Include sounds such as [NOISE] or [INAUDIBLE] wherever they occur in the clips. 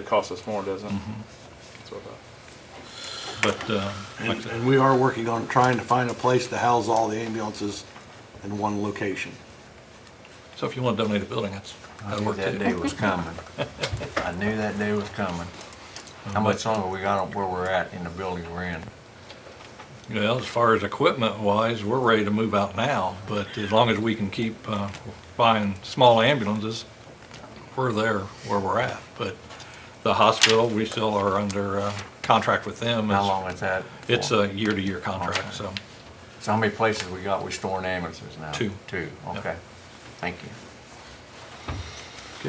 It costs us more, doesn't it? That's what I thought. But, uh, like I And said, and we are working on trying to find a place to house all the ambulances in one location. so if you want to donate a building, that's, I that'll knew work that day too. was coming. I knew that day was coming. How much longer we got on where we're at in the building we're in? Well, as far as equipment wise, we're ready to move out now, but as long as we can keep uh, buying small ambulances, we're there where we're at. But the hospital, we still are under uh, contract with them. How long is that? for? It's uh, a year-to-year contract, so. So how many places we got, we storing ambulances now? Two. Two, Yeah. okay. Thank you.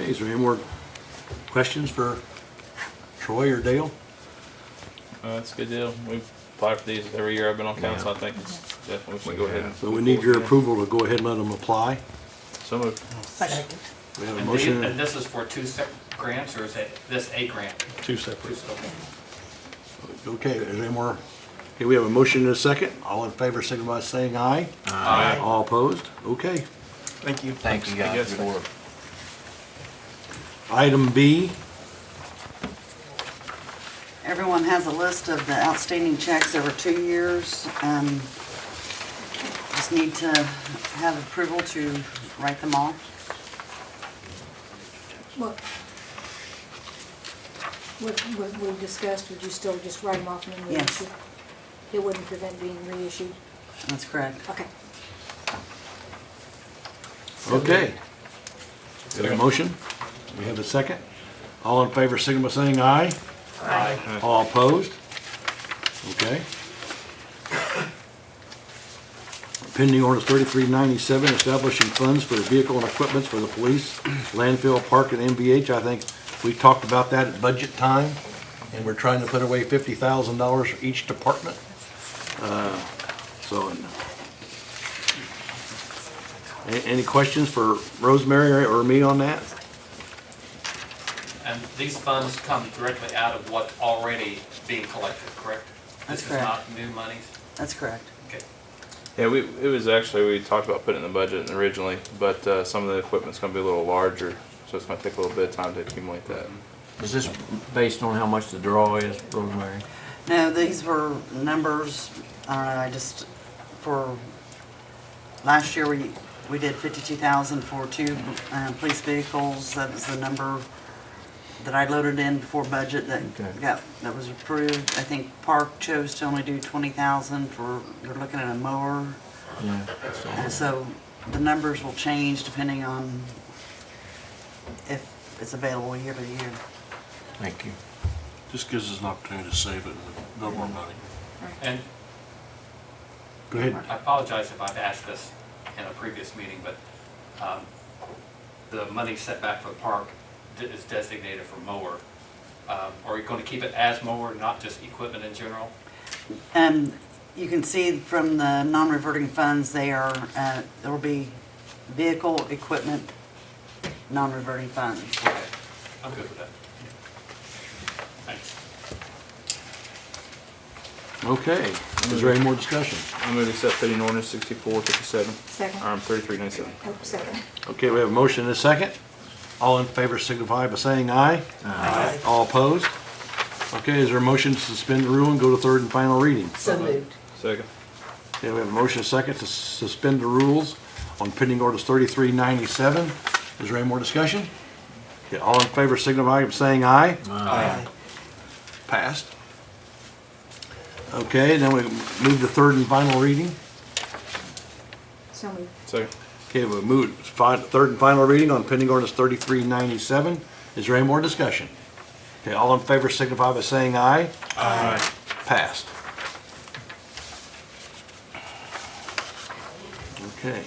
Okay, is there any more questions for Troy or Dale? Uh, That's a good deal. We've applied for these every year I've been on council. I think it's definitely, we should go ahead and. So we need your approval to go ahead and let them apply. So moved. Second. We have a And the- motion, And and this is for two separate grants, or is it this a grant? Two Two separate. separate. okay, is there any more? Okay, we have a motion and a second. All in favor, signify by saying aye. Aye. All opposed? Okay. Thank you. Thank Thank you you, guys. guys. Good work. Item B, Everyone has a list of the outstanding checks over two years. Um, Just need to have approval to write them all. What, what, what we discussed, would you still just write them off and then Yes. reissue? It wouldn't prevent being reissued? That's correct. Okay. okay. We have a motion, we have a second. All in favor, signify by saying aye. All opposed? Okay. Pending orders thirty-three ninety-seven, establishing funds for vehicle and equipments for the police, landfill, park, and MVH. I think we talked about that at budget time, and we're trying to put away fifty thousand dollars for each department. Uh, So, and- a- any questions for Rosemary or me on that? And these funds come directly out of what's already being collected, correct? This That's is correct. not new monies? That's correct. Okay. Yeah, we, it was actually, we talked about putting it in the budget originally, but, uh, some of the equipment's gonna be a little larger, so it's gonna take a little bit of time to accumulate that. Is this based on how much the draw is, Rosemary? No, these were numbers, I don't know, I just, for, last year, we, we did fifty-two thousand for two, uh, police vehicles, that was the number that I loaded in before budget Okay. that got, that was approved. I think Park chose to only do twenty thousand for, they're looking at a mower, Yeah. and so the numbers will change depending on if it's available year to year. Thank you. Just gives us an opportunity to save it, no more money. And Go ahead. I apologize if I've asked this in a previous meeting, but um, the money set back for the park de- is designated for mower. Um, Are you going to keep it as mower, not just equipment in general? Um, you can see from the non-reverting funds, they are, uh, there will be vehicle, equipment, non-reverting funds. Okay, I'm good with that. Thanks. Okay, is there any more discussion? I move to accept pending ordinance sixty-four fifty-seven, Second. or thirty-three ninety-seven. Oh, second. Okay, we have a motion and a second. All in favor signify by saying aye. Aye. All opposed? Okay, is there a motion to suspend the rule and go to third and final reading? So moved. Second. Okay, we have a motion and a second to suspend the rules on pending orders 3397. Is there any more discussion? Okay, all in favor signify by saying aye. Aye. Passed. Okay, then we move to third and final reading. So moved. Second. Okay, we move to fi- third and final reading on pending ordinance 3397. Is there any more discussion? Okay, all in favor signify by saying aye. Aye. Passed. Okay.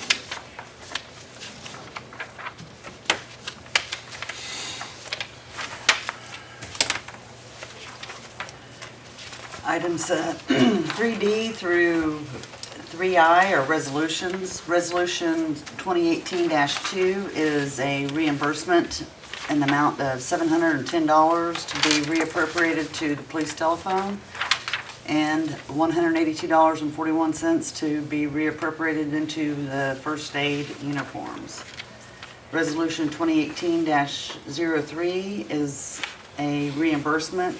Items uh, [CLEARS THROAT] 3D through 3I are resolutions. Resolution 2018-2 is a reimbursement in the amount of $710 to be reappropriated to the police telephone and $182.41 to be reappropriated into the first aid uniforms. Resolution 2018-03 is a reimbursement